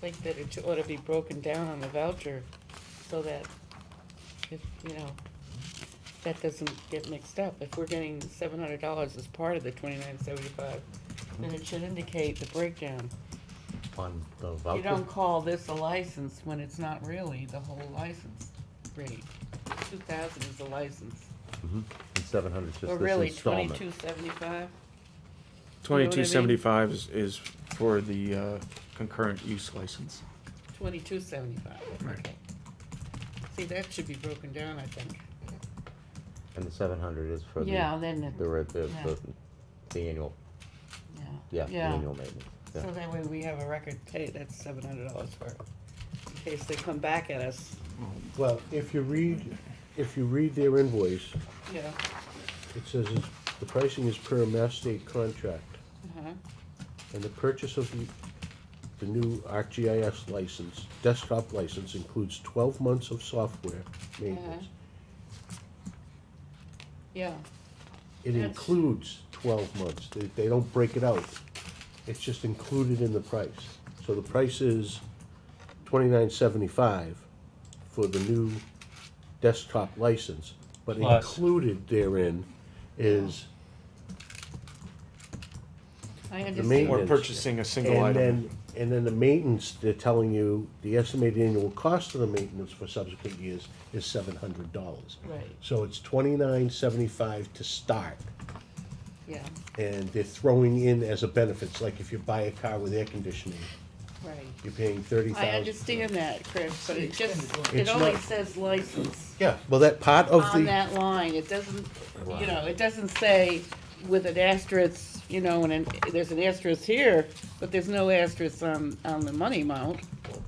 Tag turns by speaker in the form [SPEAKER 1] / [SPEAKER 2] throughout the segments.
[SPEAKER 1] think that it ought to be broken down on the voucher so that if, you know, that doesn't get mixed up. If we're getting seven hundred dollars as part of the twenty-nine seventy-five, then it should indicate the breakdown.
[SPEAKER 2] on the
[SPEAKER 1] You
[SPEAKER 2] voucher.
[SPEAKER 1] don't call this a license when it's not really the whole license rate. Two thousand is the license,
[SPEAKER 2] Seven hundred,
[SPEAKER 1] or
[SPEAKER 2] just
[SPEAKER 1] really
[SPEAKER 2] this installment.
[SPEAKER 1] twenty-two seventy-five?
[SPEAKER 3] Twenty-two seventy-five is, is for the uh, concurrent use license.
[SPEAKER 1] Twenty-two seventy-five,
[SPEAKER 3] Right.
[SPEAKER 1] okay. See, that should be broken down, I think.
[SPEAKER 2] And the seven hundred is for the,
[SPEAKER 1] Yeah, then, it-
[SPEAKER 2] the, re- the,
[SPEAKER 1] yeah.
[SPEAKER 2] the, the annual, yeah,
[SPEAKER 1] yeah,
[SPEAKER 2] the
[SPEAKER 1] yeah.
[SPEAKER 2] annual maintenance.
[SPEAKER 1] So that way we have a record, hey, that's seven hundred dollars for, it, in case they come back at us,
[SPEAKER 4] Well, if you read, if you read their invoice,
[SPEAKER 1] you know,
[SPEAKER 4] it says it's- the pricing is per Mass State contract,
[SPEAKER 1] uh-huh,
[SPEAKER 4] and the purchase of the, the new ArcGIS license, desktop license includes twelve months of software maintenance.
[SPEAKER 1] yeah.
[SPEAKER 4] It
[SPEAKER 1] That's-
[SPEAKER 4] includes twelve months, they, they don't break it out, it's just included in the price. So the price is twenty-nine seventy-five for the new desktop license, but
[SPEAKER 5] Plus.
[SPEAKER 4] included therein is
[SPEAKER 1] I
[SPEAKER 4] main-
[SPEAKER 1] understand,
[SPEAKER 3] Or
[SPEAKER 4] Yes.
[SPEAKER 3] purchasing a single
[SPEAKER 4] And
[SPEAKER 3] item.
[SPEAKER 4] then, and then the maintenance, they're telling you, the estimated annual cost of the maintenance for subsequent years is seven hundred dollars.
[SPEAKER 1] right,
[SPEAKER 4] So it's twenty-nine seventy-five to start,
[SPEAKER 1] yeah,
[SPEAKER 4] and they're throwing in as a benefits, like if you buy a car with air conditioning,
[SPEAKER 1] right.
[SPEAKER 4] you're paying thirty thousand.
[SPEAKER 1] I understand that, Chris, but it just, it
[SPEAKER 4] It's
[SPEAKER 1] only
[SPEAKER 4] not-
[SPEAKER 1] says license
[SPEAKER 4] Yeah, well, that part of
[SPEAKER 1] on
[SPEAKER 4] the,
[SPEAKER 1] that line, it doesn't, you know, it doesn't say with an asterisk, you know, and an, there's an asterisk here, but there's no asterisk on, on the money amount.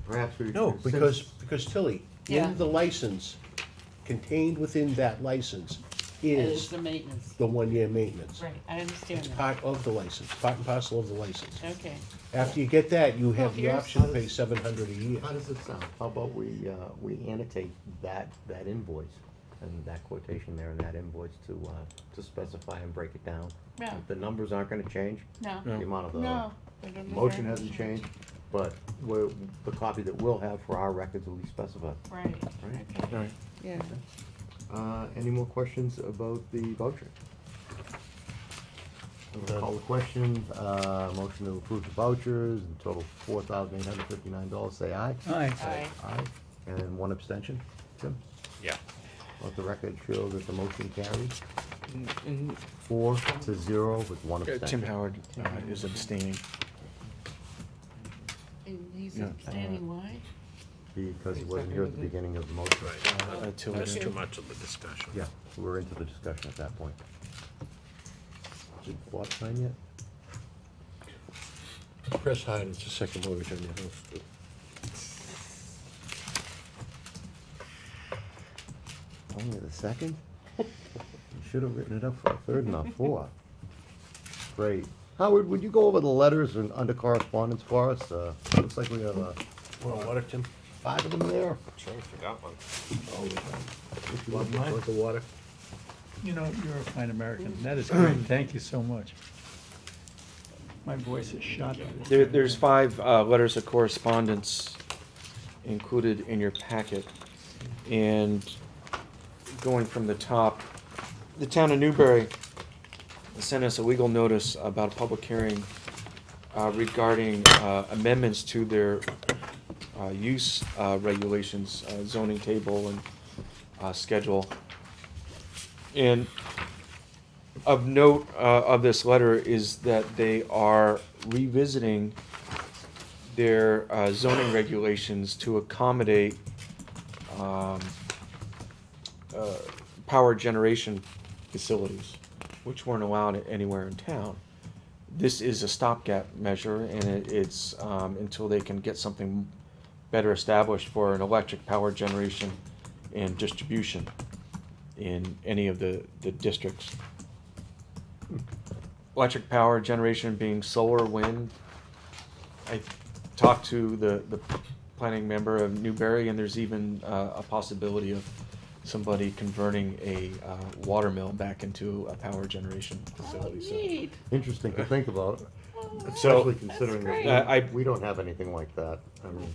[SPEAKER 2] Perhaps we.
[SPEAKER 4] no, because, because Tilly,
[SPEAKER 1] Yeah.
[SPEAKER 4] in the license, contained within that license
[SPEAKER 1] and It's
[SPEAKER 4] is
[SPEAKER 1] the maintenance,
[SPEAKER 4] the one-year maintenance.
[SPEAKER 1] right, I understand
[SPEAKER 4] It's
[SPEAKER 1] that,
[SPEAKER 4] part of the license, part and parcel of the license.
[SPEAKER 1] okay.
[SPEAKER 4] After you get that, you
[SPEAKER 1] Oh,
[SPEAKER 4] have the
[SPEAKER 1] here's-
[SPEAKER 4] option to pay seven hundred a year.
[SPEAKER 2] How does it sound? How about we, uh, we annotate that, that invoice and that quotation there and that invoice to, uh, to specify and break it down?
[SPEAKER 1] Yeah.
[SPEAKER 2] The numbers aren't gonna change,
[SPEAKER 1] No,
[SPEAKER 2] the amount of the.
[SPEAKER 1] no. I don't know
[SPEAKER 2] Motion
[SPEAKER 1] where-
[SPEAKER 2] hasn't changed, but we're, the copy that we'll have for our records will be specified.
[SPEAKER 1] Right,
[SPEAKER 2] Right.
[SPEAKER 1] okay,
[SPEAKER 3] All right.
[SPEAKER 1] yeah.
[SPEAKER 2] Uh, any more questions about the voucher? I'll Call the question, uh, motion to approve the vouchers, in total four thousand eight hundred fifty-nine dollars, say aye.
[SPEAKER 6] Aye.
[SPEAKER 1] Aye.
[SPEAKER 2] Aye, and then one abstention, Tim?
[SPEAKER 5] Yeah.
[SPEAKER 2] Let the record show that the motion carried, four to zero with one
[SPEAKER 3] Uh, Tim
[SPEAKER 2] abstention.
[SPEAKER 3] Howard uh, is abstaining.
[SPEAKER 1] And he's
[SPEAKER 3] Yeah.
[SPEAKER 1] standing wide?
[SPEAKER 2] Because he wasn't here at the beginning of the motion.
[SPEAKER 3] uh, till we
[SPEAKER 1] Okay.
[SPEAKER 3] do-
[SPEAKER 5] much of a discussion.
[SPEAKER 2] Yeah, we're into the discussion at that point. Is it bought time yet?
[SPEAKER 4] Press Hyde, it's a second mortgage on your house.
[SPEAKER 2] Only the second? You should have written it up for a third and a fourth. Great. Howard, would you go over the letters and under correspondence for us? Uh, looks like we have, uh,
[SPEAKER 4] Well, water, Tim?
[SPEAKER 2] five of them there.
[SPEAKER 5] Sure, forgot one.
[SPEAKER 4] Oh,
[SPEAKER 2] If you
[SPEAKER 4] Want
[SPEAKER 2] want
[SPEAKER 4] me to
[SPEAKER 2] mine.
[SPEAKER 4] drink the water?
[SPEAKER 6] You know, you're a fine American. That is great. Thank you so much. My voice is shot.
[SPEAKER 3] There, there's five uh, letters of correspondence included in your packet. And going from the top, the town of Newbury sent us a legal notice about a public hearing uh, regarding uh, amendments to their uh, use uh, regulations, uh, zoning table and uh, schedule. And of note uh, of this letter is that they are revisiting their uh, zoning regulations to accommodate um, uh, power generation facilities, which weren't allowed anywhere in town. This is a stopgap measure, and it, it's um, until they can get something better established for an electric power generation and distribution in any of the, the districts electric power generation being solar, wind. I talked to the, the planning member of Newberry, and there's even uh, a possibility of somebody converting a uh, water mill back into a power generation
[SPEAKER 1] Oh,
[SPEAKER 3] facility. So
[SPEAKER 1] neat.
[SPEAKER 2] Interesting to think about. especially considering
[SPEAKER 1] great.
[SPEAKER 3] Uh, I-
[SPEAKER 2] that we don't have anything like that. I mean.